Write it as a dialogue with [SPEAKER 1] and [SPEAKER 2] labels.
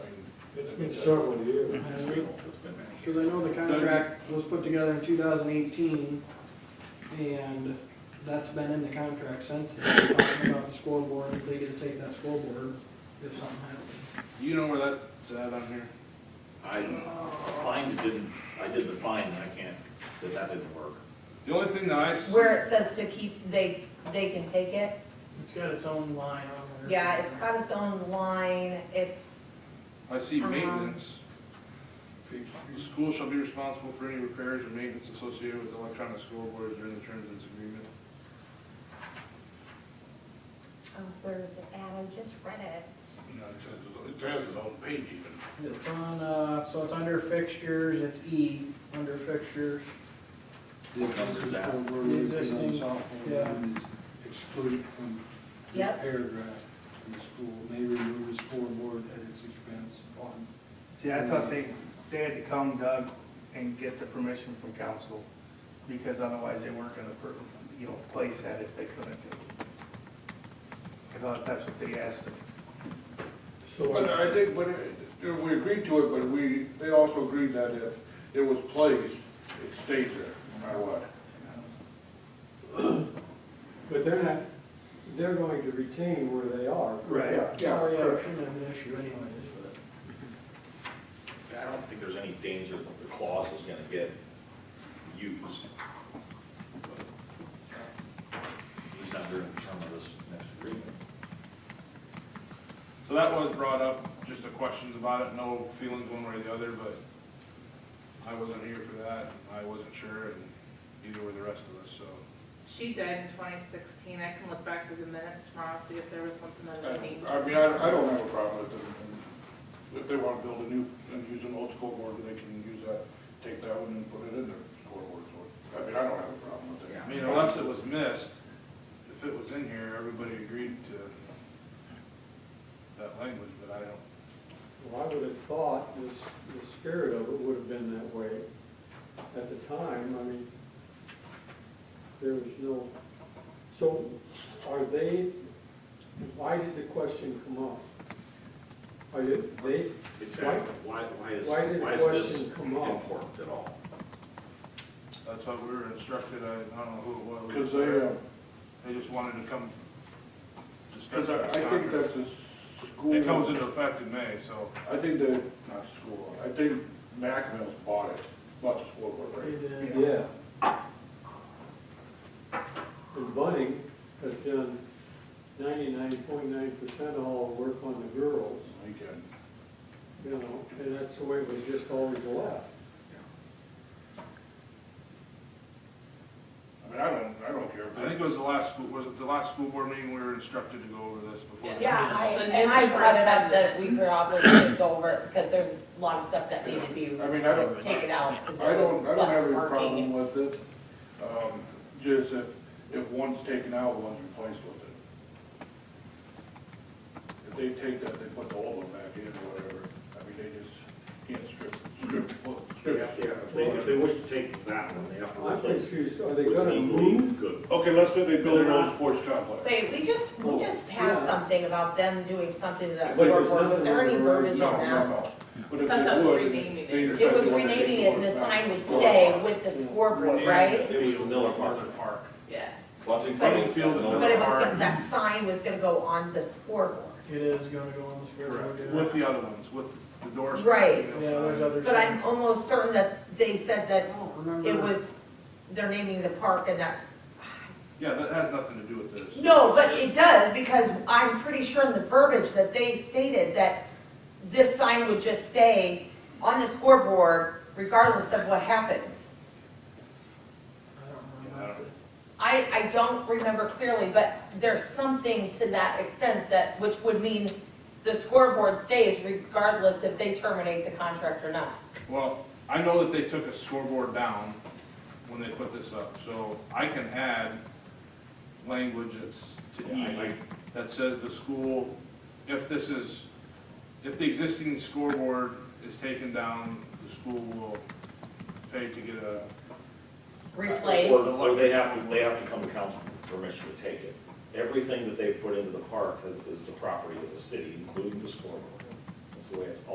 [SPEAKER 1] It's been several years.
[SPEAKER 2] Because I know the contract was put together in two thousand eighteen, and that's been in the contract since then, talking about the scoreboard, if they get to take that scoreboard, if something happened.
[SPEAKER 3] Do you know where that's at on here?
[SPEAKER 4] I, find it didn't, I did the find, and I can't, that that didn't work.
[SPEAKER 3] The only thing that I, s-
[SPEAKER 5] Where it says to keep, they, they can take it,
[SPEAKER 2] It's got its own line on
[SPEAKER 5] yeah, it's got its own line, it's,
[SPEAKER 3] I see
[SPEAKER 5] Uh-huh.
[SPEAKER 3] maintenance. The School shall be responsible for any repairs or maintenance associated with electronic scoreboards during the terms of this agreement.
[SPEAKER 5] oh, where is it at? I just read it.
[SPEAKER 3] No, it says- It has its own page even.
[SPEAKER 2] It's on, uh, so it's under fixtures, it's E, under fixtures.
[SPEAKER 4] What number is that?
[SPEAKER 2] The existing, yeah.
[SPEAKER 1] Excluded from this
[SPEAKER 5] Yep.
[SPEAKER 1] paragraph in the school, may remove the scoreboard at its expense upon.
[SPEAKER 6] See, I thought they, they had to come, Doug, and get the permission from council, because otherwise they weren't gonna, per- you know, place that if they couldn't. I thought that's what they asked them.
[SPEAKER 3] But
[SPEAKER 1] So,
[SPEAKER 3] I think, but, it- you know, we agreed to it, but we, they also agreed that if it was placed, it stays there, no matter what.
[SPEAKER 1] but they're not, they're going to retain where they are.
[SPEAKER 3] Right.
[SPEAKER 2] Oh, yeah, it shouldn't have an issue anyways, but.
[SPEAKER 4] I don't think there's any danger that the clause is gonna get used. He's not during the term of this next agreement.
[SPEAKER 3] So that was brought up, just the questions about it, no feelings one way or the other, but I wasn't here for that, I wasn't sure, and neither were the rest of us, so.
[SPEAKER 7] She died in twenty sixteen, I can look back through the minutes tomorrow, see if there was something that I need.
[SPEAKER 3] I mean, I, I don't have a problem with them, if they wanna build a new, and use an old scoreboard, they can use that, take that one and put it in their scoreboard, so, I mean, I don't have a problem with that. I mean, unless it was missed, if it was in here, everybody agreed to that language, but I don't,
[SPEAKER 1] Well, I would have thought this, the spirit of it would have been that way at the time, I mean, there was no, so are they, why did the question come up? Are they, they,
[SPEAKER 4] Exactly. Why, why is,
[SPEAKER 1] Why did the
[SPEAKER 4] why is this
[SPEAKER 1] question come up?
[SPEAKER 4] important at all?
[SPEAKER 3] that's how we were instructed, I, I don't know who it was.
[SPEAKER 8] Because they, uh,
[SPEAKER 3] um, They just wanted to come discuss.
[SPEAKER 8] because I, I think
[SPEAKER 3] that
[SPEAKER 8] that's a school.
[SPEAKER 3] It comes into effect in May, so,
[SPEAKER 8] I think the, not school, I think Macmill's bought it, bought the school board, right?
[SPEAKER 1] yeah. And Budding has done ninety-nine point nine percent of all the work on the girls,
[SPEAKER 8] We can-
[SPEAKER 1] you know, and that's the way it was just always left.
[SPEAKER 8] I mean, I don't, I don't care.
[SPEAKER 3] I think it was the last, school. was it the last school board meeting we were instructed to go over this before? the-
[SPEAKER 9] Yeah, I-
[SPEAKER 7] The new
[SPEAKER 9] and I brought it up that we probably should go over it because there's a lot of stuff that needed to be
[SPEAKER 8] I mean, I don't,
[SPEAKER 9] taken out because
[SPEAKER 8] I
[SPEAKER 9] it was
[SPEAKER 8] don't, I don't have
[SPEAKER 9] less
[SPEAKER 8] any problem
[SPEAKER 9] working.
[SPEAKER 8] with it, um, just if, if one's taken out, one's replaced with it. If they take that, they put the old one back in or whatever, I mean, they just can't strip, strip,
[SPEAKER 4] They
[SPEAKER 8] strip.
[SPEAKER 4] have to- If they, if they wish to take that one, they have to
[SPEAKER 1] I'm
[SPEAKER 4] replace it
[SPEAKER 1] confused, are they
[SPEAKER 4] with an
[SPEAKER 1] gonna
[SPEAKER 4] equally
[SPEAKER 1] move?
[SPEAKER 4] good.
[SPEAKER 8] Okay, let's say they build an
[SPEAKER 4] They're
[SPEAKER 8] old
[SPEAKER 4] not-
[SPEAKER 8] sports complex.
[SPEAKER 5] Wait, we just, we just passed
[SPEAKER 1] Yeah.
[SPEAKER 5] something about them doing something to that
[SPEAKER 1] But there's
[SPEAKER 5] scoreboard, was there any
[SPEAKER 1] nothing wrong
[SPEAKER 5] verbiage in
[SPEAKER 8] No, no,
[SPEAKER 5] that?
[SPEAKER 8] no. But if
[SPEAKER 7] Sometimes
[SPEAKER 8] they would,
[SPEAKER 7] renaming it.
[SPEAKER 8] they
[SPEAKER 9] It was
[SPEAKER 8] decide they
[SPEAKER 9] renaming it, and
[SPEAKER 8] want to
[SPEAKER 9] the
[SPEAKER 8] take over
[SPEAKER 9] sign would
[SPEAKER 8] back.
[SPEAKER 9] stay with the scoreboard, right?
[SPEAKER 4] It was the Miller Park.
[SPEAKER 3] Park.
[SPEAKER 7] Yeah,
[SPEAKER 4] Bunting
[SPEAKER 3] Bunting Field and
[SPEAKER 5] But it was,
[SPEAKER 3] Miller
[SPEAKER 5] go-
[SPEAKER 3] Park
[SPEAKER 5] that sign was gonna go on the scoreboard,
[SPEAKER 2] It is gonna go on the scoreboard.
[SPEAKER 3] Correct,
[SPEAKER 2] yeah.
[SPEAKER 3] with the other ones, with the doors.
[SPEAKER 5] Right.
[SPEAKER 2] Yeah, there's other.
[SPEAKER 5] but I'm almost certain that they said
[SPEAKER 2] I
[SPEAKER 5] that
[SPEAKER 2] don't remember.
[SPEAKER 5] it was, they're naming the park and that's
[SPEAKER 3] Yeah, that has nothing to do with this.
[SPEAKER 5] No, but it does, because I'm pretty sure in the verbiage that they stated that this sign would just stay on the scoreboard regardless of what happens.
[SPEAKER 2] I don't remember.
[SPEAKER 9] I, I don't remember clearly, but there's something to that extent that, which would mean the scoreboard stays regardless if they terminate the contract or not.
[SPEAKER 3] Well, I know that they took a scoreboard down when they put this up, so I can add language that's to
[SPEAKER 4] Yeah, I
[SPEAKER 3] E, that says the school, if this is, if the existing scoreboard is taken down, the school will pay to get a,
[SPEAKER 4] Or,
[SPEAKER 9] Replace,
[SPEAKER 4] or they have to, they have to come to council for permission to take it. Everything that they've put into the park is, is the property of the city, including the scoreboard. That's the way it's